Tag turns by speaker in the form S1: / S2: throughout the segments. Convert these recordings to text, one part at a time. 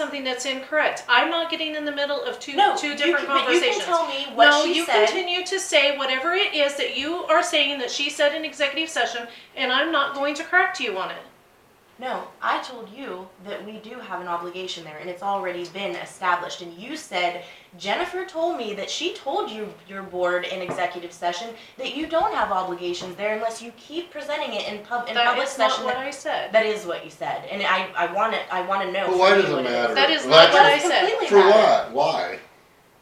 S1: something that's incorrect. I'm not getting in the middle of two
S2: No,
S1: two
S2: you
S1: different
S2: can- but
S1: conversations.
S2: You can tell me what
S1: no,
S2: she
S1: you
S2: said.
S1: continue to say whatever it is that you are saying that she said in executive session, and I'm not going to correct you on it.
S2: No, I told you that we do have an obligation there, and it's already been established. And you said Jennifer told me that she told you your board in executive session that you don't have obligations there unless you keep presenting it in pub in
S1: That
S2: public
S1: is not
S2: session.
S1: what
S2: That,
S1: I said.
S2: that is what you said, and I I want it. I want to know.
S3: But why
S2: from you
S3: does
S2: what
S3: it matter?
S1: That is
S3: Why
S1: not
S3: does-
S1: what I
S2: It doesn't
S1: said.
S2: completely
S3: For
S2: matter.
S3: what? Why?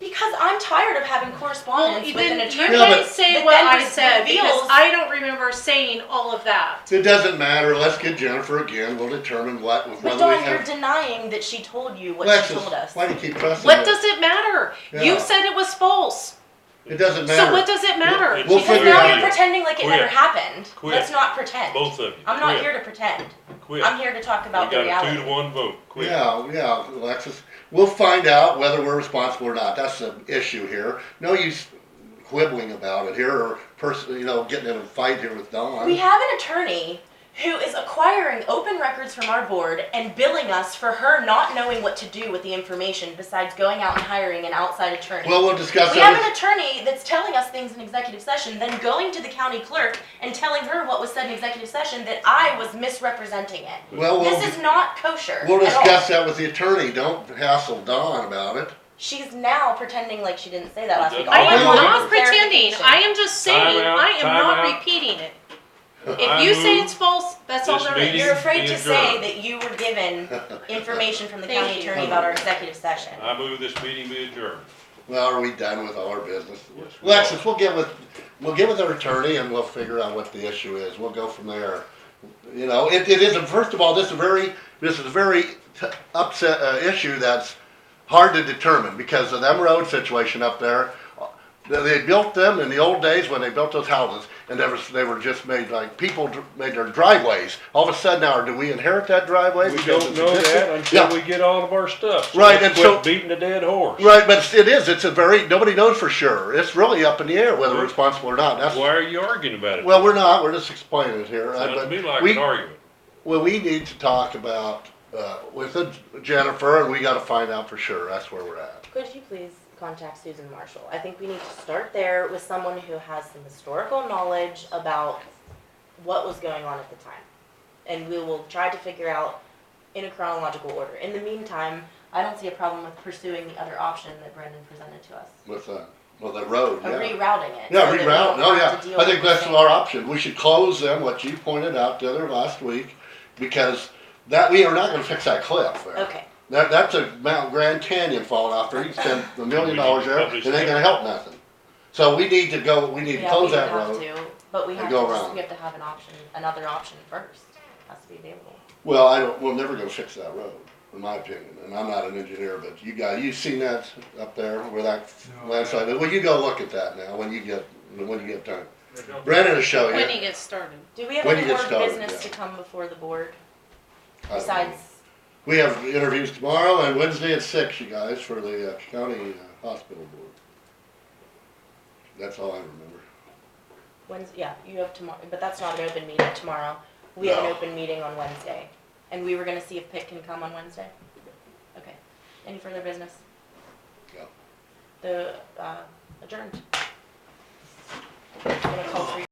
S2: Because I'm tired of having correspondence
S1: Well,
S2: with
S1: then
S2: an
S1: you
S2: attorney.
S3: Yeah,
S1: can't
S3: but-
S1: say
S2: that
S1: what
S2: then
S1: I
S2: just
S1: said because
S2: reveals-
S1: I don't remember saying all of that.
S3: It doesn't matter. Let's get Jennifer again. We'll determine what,
S2: But
S3: whether we
S2: Dawn, you're
S3: have.
S2: denying that she told you what she told
S3: Alexis,
S2: us.
S3: why do you keep pressing
S1: What
S3: it?
S1: does it matter?
S3: Yeah.
S1: You said it was false.
S3: It doesn't matter.
S1: So what does it matter?
S4: We'll
S2: because
S4: figure
S2: now
S4: it out.
S2: you're pretending like it
S4: Quit.
S2: never happened.
S4: Quit.
S2: Let's not pretend.
S4: Both of you.
S2: I'm not
S4: Quit.
S2: here to pretend.
S4: Quit.
S2: I'm here to talk about
S4: we
S2: the
S4: got a
S2: reality.
S4: two to one vote. Quit.
S3: Yeah, yeah, Alexis. We'll find out whether we're responsible or not. That's the issue here. No use quibbling about it here or person, you know, getting in a fight here with Don.
S2: We have an attorney who is acquiring open records from our board and billing us for her not knowing what to do with the information besides going out and hiring an outside attorney.
S3: well, we'll discuss
S2: we have
S3: that.
S2: an attorney that's telling us things in executive session, then going to the county clerk and telling her what was said in executive session that I was misrepresenting it.
S3: With, well, we'll,
S2: This is not kosher.
S3: we'll
S2: at all.
S3: discuss that with the attorney. Don't hassle Don about it.
S2: She's now pretending like she didn't say that last week.
S4: I
S1: I
S2: All
S1: am
S3: Well,
S2: wanted
S1: not
S2: was
S1: pretending.
S2: clarification.
S1: I am just saying,
S4: Time out,
S1: I am
S4: time
S1: not
S4: out.
S1: repeating it.
S4: I
S1: If you say
S4: move
S1: it's false, that's all
S4: this
S1: there
S4: meeting-
S1: is.
S2: You're afraid to
S4: Being
S2: say
S4: adjourned.
S2: that you were given information from the
S1: Thank
S2: county
S1: you.
S2: attorney about our executive session.
S4: I move this meeting be adjourned.
S3: well, are we done with all our business?
S4: Yes, we
S3: Alexis, we'll get with we'll get with our attorney and we'll figure out what the issue is. We'll go from there. You know, it, it is a, first of all, this is very this is a very t- upset uh, issue that's hard to determine because of them road situation up there. They- They built them in the old days when they built those houses, and they were, they were just made like people dr- made their driveways. All of a sudden now, do we inherit that driveway?
S5: We
S3: because
S5: don't
S3: it's
S5: know
S3: existing?
S5: that until
S3: Yeah.
S5: we get all of our stuff. So
S3: Right,
S5: let's
S3: and
S5: quit
S3: so-
S5: Beating a dead horse.
S3: Right, but it is. It's a very nobody knows for sure. It's really up in the air whether we're responsible or not. That's
S5: Why are you arguing about it?
S3: well, we're not. We're just explaining it here. Uh,
S5: Sounds
S3: but
S5: to me like
S3: we,
S5: an argument.
S3: well, we need to talk about uh, with the Jennifer, and we got to find out for sure. That's where we're at.
S2: Could you please contact Susan Marshall? I think we need to start there with someone who has some historical knowledge about what was going on at the time. And we will try to figure out in a chronological order. In the meantime, I don't see a problem with pursuing the other option that Brendan presented to us.
S3: With uh, well, the
S2: Of
S3: road. Yeah.
S2: rerouting it.
S3: Yeah,
S2: so that we
S3: reroute.
S2: don't
S3: Oh,
S2: have to
S3: yeah.
S2: deal
S3: I think
S2: with the
S3: that's
S2: same-
S3: our option. We should close them, what you pointed out the other last week, because that we are not going to fix that cliff there.
S2: Okay,
S3: That, that's a Mount Grand Canyon falling out there. You spend a
S4: We
S3: million
S4: need
S3: dollars
S4: to
S3: there, it
S4: publish
S3: ain't gonna
S4: that.
S3: help nothing. So we need to go, we need to
S2: yeah, we
S3: close
S2: would
S3: that
S2: have
S3: road.
S2: to, but we
S3: and
S2: have
S3: go
S2: to, just-
S3: around.
S2: we have to have an option, another option first, has to be available.
S3: Well, I don't, we're never gonna fix that road, in my opinion, and I'm not an engineer, but you guys, you've seen that up there where that
S6: No,
S3: landslide, well, you go look at that now when you get, when you get time. Brandon will show you.
S1: When he
S3: I
S1: gets started.
S2: Do we have
S3: When
S2: any
S3: you
S2: more
S3: get started,
S2: business to
S3: yeah.
S2: come before the board
S3: don't know.
S2: besides
S3: We have interviews tomorrow and Wednesday at six, you guys, for the uh, county uh, hospital board. That's all I remember.
S2: Wednesday, yeah, you have tomorrow, but that's not an open meeting tomorrow. We have an
S3: No.
S2: open meeting on Wednesday, and we were gonna see if Pitt can come on Wednesday. Okay, any further business?
S3: No.
S2: The, uh, adjourned. I'm gonna call for-